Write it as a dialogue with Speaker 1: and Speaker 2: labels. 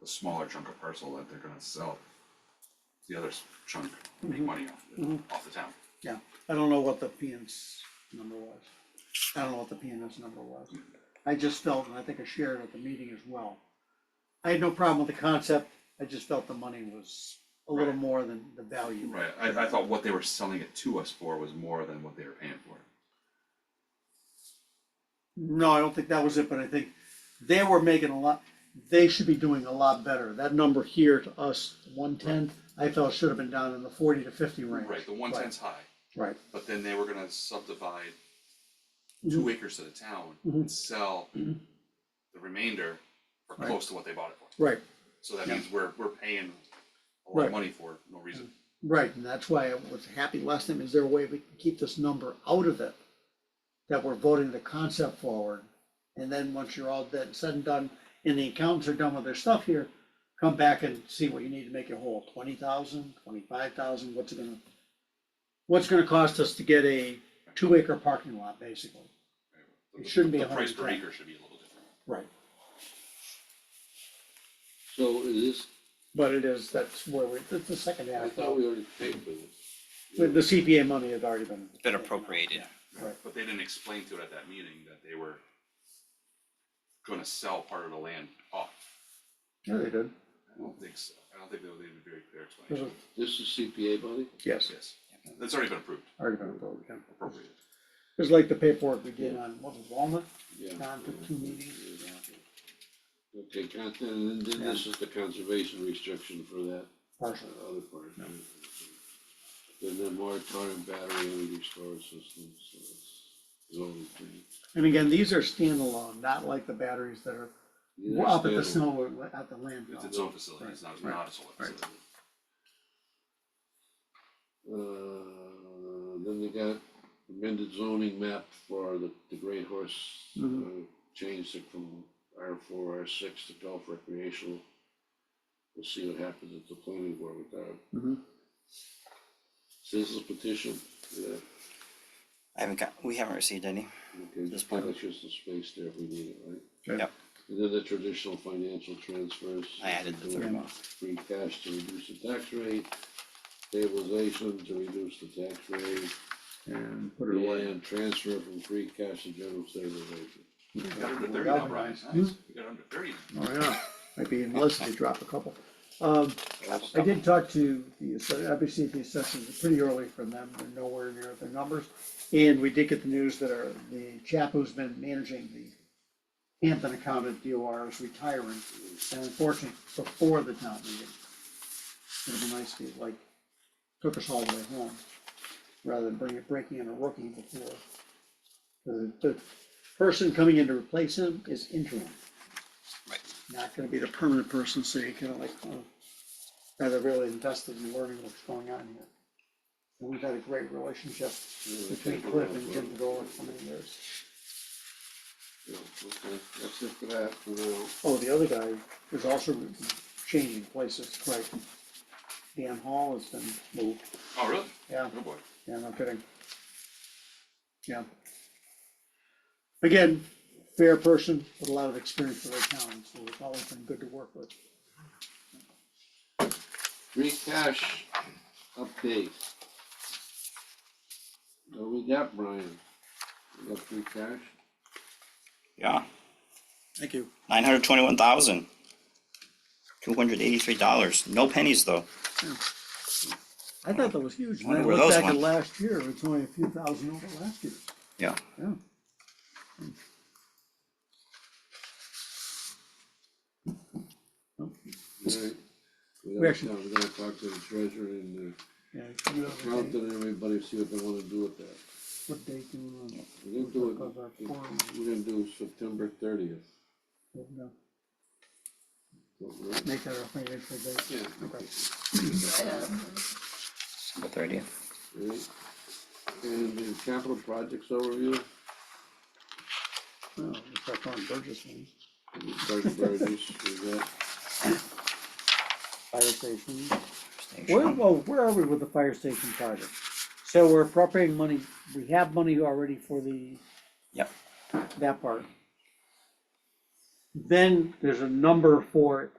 Speaker 1: the smaller chunk of parcel that they're gonna sell. The other s- chunk, make
Speaker 2: Mm-hmm.
Speaker 1: money off, the- off the town.
Speaker 2: Yeah, I don't know what the PN's number was. I don't know what the PN's number was. I just felt, and I think I shared at the meeting as well. I had no problem with the concept, I just felt the money was a little
Speaker 1: Right.
Speaker 2: more than the value.
Speaker 1: Right, I, I thought what they were selling it to us for was more than what they were paying for. it.
Speaker 2: No, I don't think that was it, but I think they were making a lot, they should be doing a lot better. That number here to us, one ten, I felt should have been down in the forty to fifty range.
Speaker 1: Right, the one tenth's high,
Speaker 2: Right,
Speaker 1: but then they were gonna subdivide
Speaker 2: Mm-hmm.
Speaker 1: two acres to the town
Speaker 2: Mhm.
Speaker 1: and sell the remainder for
Speaker 2: Right.
Speaker 1: close to what they bought it for.
Speaker 2: right,
Speaker 1: So that
Speaker 2: Yeah.
Speaker 1: means we're, we're paying a lot
Speaker 2: Right.
Speaker 1: of money for no reason.
Speaker 2: right, and that's why I was happy last time, is there a way we can keep this number out of it? That we're voting the concept forward, and then once you're all dead, said and done, and the accountants are done with their stuff here, come back and see what you need to make it whole, twenty thousand, twenty-five thousand, what's it gonna, what's it gonna cost us to get a two acre parking lot, basically? It shouldn't be
Speaker 1: The price per
Speaker 2: 110.
Speaker 1: acre should be a little different.
Speaker 2: Right.
Speaker 3: So is this,
Speaker 2: But it is, that's where we, that's the second
Speaker 3: I
Speaker 2: half,
Speaker 3: thought
Speaker 2: the
Speaker 3: we already paid for this.
Speaker 2: the CPA money had already been.
Speaker 4: Been appropriated.
Speaker 2: Yeah, Right,
Speaker 1: But they didn't explain to it at that meeting that they were gonna sell part of the land off.
Speaker 2: yeah, they did,
Speaker 1: I don't think so. I don't think they they did a very clear
Speaker 2: There's
Speaker 1: explanation.
Speaker 2: a-
Speaker 3: This is CPA money?
Speaker 2: yes,
Speaker 1: Yes, that's already been approved,
Speaker 2: already been approved, yeah.
Speaker 1: appropriated.
Speaker 2: It was like the paperwork we did on, what was it, Walnut,
Speaker 3: Yeah.
Speaker 2: Don took two meetings.
Speaker 3: Okay, con- and then this is the conservation restriction for that
Speaker 2: Partial.
Speaker 3: uh, other part. Then the moratorium battery energy storage systems, so it's zoning thing.
Speaker 2: And again, these are standalone, not like the batteries that are
Speaker 3: These are
Speaker 2: up at the
Speaker 3: standalone.
Speaker 2: snow, at the
Speaker 1: It's
Speaker 2: landfill.
Speaker 1: its own facility, it's not, not a solar
Speaker 2: Right.
Speaker 1: facility.
Speaker 3: Uh, then they got amended zoning map for the, the Great Horse.
Speaker 2: Mhm.
Speaker 3: uh, Changed it from R four, R six to golf recreational. We'll see what happens at the planning board with that.
Speaker 2: Mhm.
Speaker 3: Citizens petition, yeah,
Speaker 4: I haven't got, we haven't received any.
Speaker 3: okay,
Speaker 4: This
Speaker 3: just
Speaker 4: part.
Speaker 3: that's just the space there if we need it, right?
Speaker 2: Sure.
Speaker 4: Yep.
Speaker 3: And then the traditional financial transfers.
Speaker 4: I added the third
Speaker 3: Yeah.
Speaker 4: one.
Speaker 3: free cash to reduce the tax rate, stabilization to reduce the tax rate. And put it away. And transfer from free cash to general stabilization.
Speaker 1: We got under thirty now, Brian, nice, we got under thirty now.
Speaker 2: Hmm? Oh, yeah, might be enlisted to drop a couple. Um, I did talk to the, ass- obviously the assessors, pretty early from them, they're nowhere near their numbers. And we did get the news that our, the chap who's been managing the Hampton account at DOR is retiring, and unfortunately, before the town meeting. It'd be nice if he like, took us all the way home, rather than bring, breaking in a rookie before. The, the person coming in to replace him is interim not gonna be the permanent person, so you kind of like, oh, rather really invested in learning what's going on here. And we've had a great relationship between Cliff and Jim DeGola for many years.
Speaker 3: Yeah, okay, that's it for that, for now.
Speaker 2: Oh, the other guy is also changing places, right? Dan Hall has been moved,
Speaker 1: Oh, really?
Speaker 2: yeah.
Speaker 1: Oh, boy.
Speaker 2: Yeah, no kidding. Yeah. Again, fair person with a lot of experience for their town, so it's always been good to work with.
Speaker 3: Free cash update. What we got, Brian? We got free cash?
Speaker 4: Yeah,
Speaker 2: Thank you.
Speaker 4: nine hundred twenty-one thousand. Two hundred eighty-three dollars, no pennies though.
Speaker 2: I thought that was huge. And I
Speaker 4: Wonder where
Speaker 2: looked
Speaker 4: those
Speaker 2: back at
Speaker 4: went.
Speaker 2: last year, it's only a few thousand over last year,
Speaker 4: Yeah,
Speaker 2: yeah.
Speaker 3: Alright. We
Speaker 2: We
Speaker 3: gotta,
Speaker 2: actually-
Speaker 3: we gotta talk to the treasurer and
Speaker 2: Yeah, you
Speaker 3: the
Speaker 2: have a date-
Speaker 3: accountant and everybody, see what they wanna do with that.
Speaker 2: What date do you want?
Speaker 3: We're gonna do it, we're gonna do September thirtieth.
Speaker 2: No, Make that our financial date.
Speaker 3: Yeah.
Speaker 2: Okay.
Speaker 4: December thirtieth.
Speaker 3: Right, and the capital projects overview,
Speaker 2: Well, we start calling Burgess ones,
Speaker 3: Sergeant Burgess, we got,
Speaker 2: fire station. Where, well, where are we with the fire station project? So we're appropriating money, we have money already for the.
Speaker 4: Yep.
Speaker 2: That part. Then there's a number for